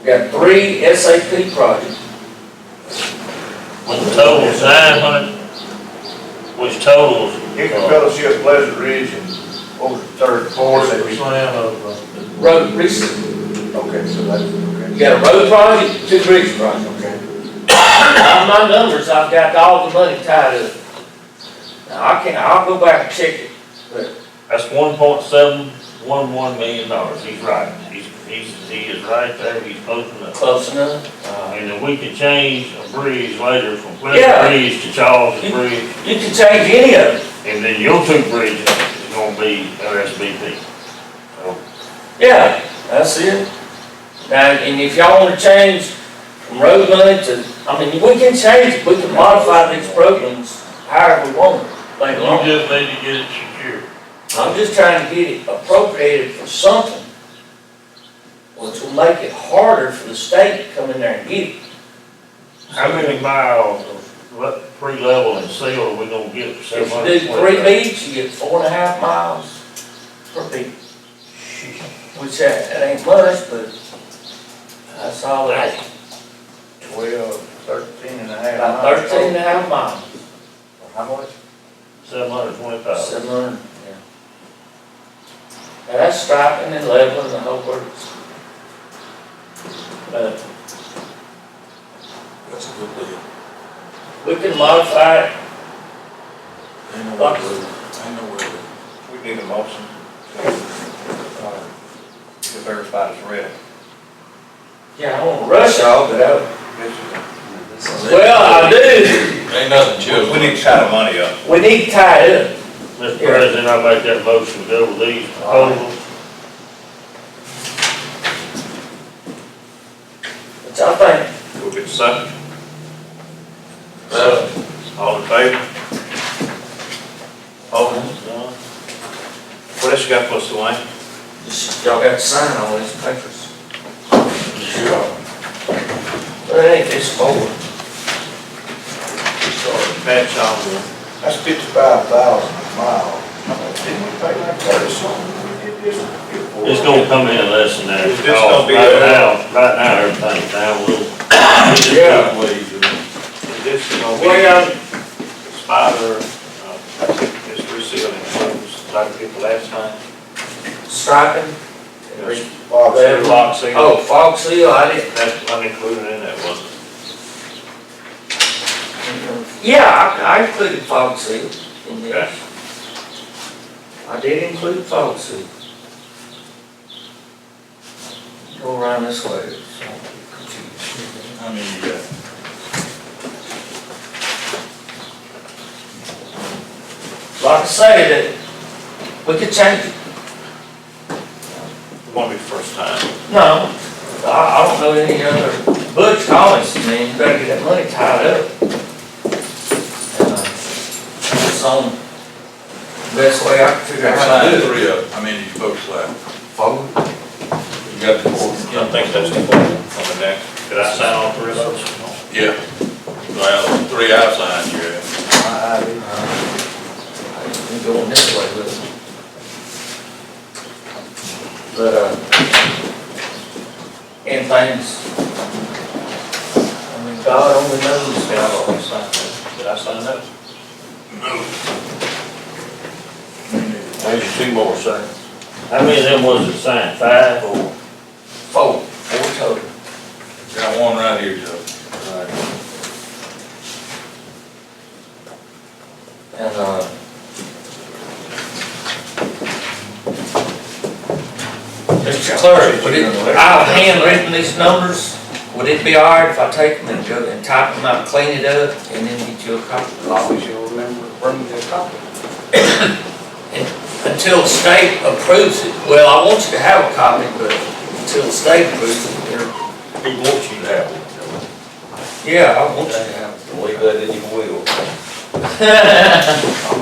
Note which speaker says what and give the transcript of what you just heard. Speaker 1: We got three SAP projects.
Speaker 2: Which totals nine hundred, which totals.
Speaker 3: Hickory Fellowship, Pleasant Ridge, and over the third, fourth,
Speaker 4: Forty
Speaker 3: and we-
Speaker 4: percent of, uh,
Speaker 1: Road, recent,
Speaker 3: okay, so that's,
Speaker 1: we
Speaker 3: okay.
Speaker 1: got a road project, two bridge projects.
Speaker 3: Okay.
Speaker 1: On my numbers, I've got all the money tied up. Now, I can, I'll go back and check it.
Speaker 2: That's one point seven one one million dollars, he's right, he's, he's, he is right there, he's close enough.
Speaker 1: Close enough.
Speaker 2: Uh, and then we can change a bridge later from
Speaker 1: Yeah.
Speaker 2: Pleasant Bridge to Charles Bridge,
Speaker 1: You can change any of it.
Speaker 2: and then your two bridges is gonna be LSBP. So,
Speaker 1: Yeah, that's it. Now, and if y'all wanna change from road money to, I mean, we can change, it. we can modify these programs however we want later on.
Speaker 2: You just need to get it secured.
Speaker 1: I'm just trying to get it appropriated for something, which will make it harder for the state to come in there and get it.
Speaker 2: How many miles of le- pre-level and seal are we gonna get for seven
Speaker 1: If
Speaker 2: hundred?
Speaker 1: you do three beats, you get four and a half miles per beat. Which that, that ain't much, but that's all that,
Speaker 3: Twelve, thirteen and a half.
Speaker 1: about
Speaker 3: miles.
Speaker 1: thirteen and a half miles,
Speaker 3: How much?
Speaker 2: Seven hundred twenty-five.
Speaker 1: seven hundred, yeah. Now that's striping and leveling the whole works. But
Speaker 4: that's a good deal.
Speaker 1: we can modify it,
Speaker 4: Ain't no way to do it. Ain't no way to do it.
Speaker 3: We need a motion to, uh, to verify this real.
Speaker 1: yeah, I won't rush all, but I,
Speaker 3: This is-
Speaker 1: well, I do.
Speaker 4: Ain't nothing to it.
Speaker 3: We need to tie the money up.
Speaker 1: We need to tie it up.
Speaker 2: Mr. President, I make that motion to go with these proposals.
Speaker 1: What y'all think?
Speaker 3: We'll get second.
Speaker 4: Uh,
Speaker 3: All in favor? Oh,
Speaker 2: Done.
Speaker 3: what else you got for us, Dwayne?
Speaker 1: Just- Y'all got to sign all these papers.
Speaker 4: Sure.
Speaker 1: But it ain't this board.
Speaker 3: Patch on That's fifty-five thousand a mile. Didn't we pay like thirty something? when we did this before?
Speaker 2: It's gonna come in less than that.
Speaker 3: It's just gonna be-
Speaker 2: Right now, right now, everything's down a little. We just
Speaker 1: Yeah.
Speaker 2: got ways of-
Speaker 3: This is gonna
Speaker 1: Well,
Speaker 3: be spider, uh, it's resealing, holes, like we did the last time.
Speaker 1: striping.
Speaker 3: There's
Speaker 1: Bob Seal.
Speaker 3: Lock seal.
Speaker 1: Oh, fog seal, I didn't.
Speaker 3: That's unincluded in that, wasn't it?
Speaker 1: Yeah, I, I included fog seal in there.
Speaker 3: Okay.
Speaker 1: I did include fog seal. Go around this way. so I'm confused.
Speaker 4: I mean, you got.
Speaker 1: Like I say, that we could change it.
Speaker 3: It won't be the first time.
Speaker 1: No, I, I don't know any other, Butch Collins, man, you better get that money tied up. And, uh, It's on, best way I can figure out how to
Speaker 4: Sign
Speaker 1: do it.
Speaker 4: three of them, I mean, you folks like, four? You got the four?
Speaker 3: I think that's the one on the deck. Did I sign all three of those?
Speaker 4: Yeah. Well, three I signed, yeah.
Speaker 1: I'm going this way with it. But, uh, and things. I mean, God only knows
Speaker 3: Did I
Speaker 1: how.
Speaker 3: already sign those? Did I sign those?
Speaker 4: There's two more, sir.
Speaker 2: How many of them was it signed, five or?
Speaker 1: Four, four total.
Speaker 4: Got one right here, Joe.
Speaker 1: And, uh, Mr. Clerk, would it, I've handwritten these numbers, would it be all right if I take them and go and type them out, clean it up, and then get you a copy?
Speaker 5: always you'll remember, bring me a copy.
Speaker 1: Until the state approves it, well, I want you to have a copy, but until the state approves it, you're-
Speaker 4: He wants you to have one.
Speaker 1: yeah, I want you to have it.
Speaker 5: Leave that in your will.
Speaker 1: I'm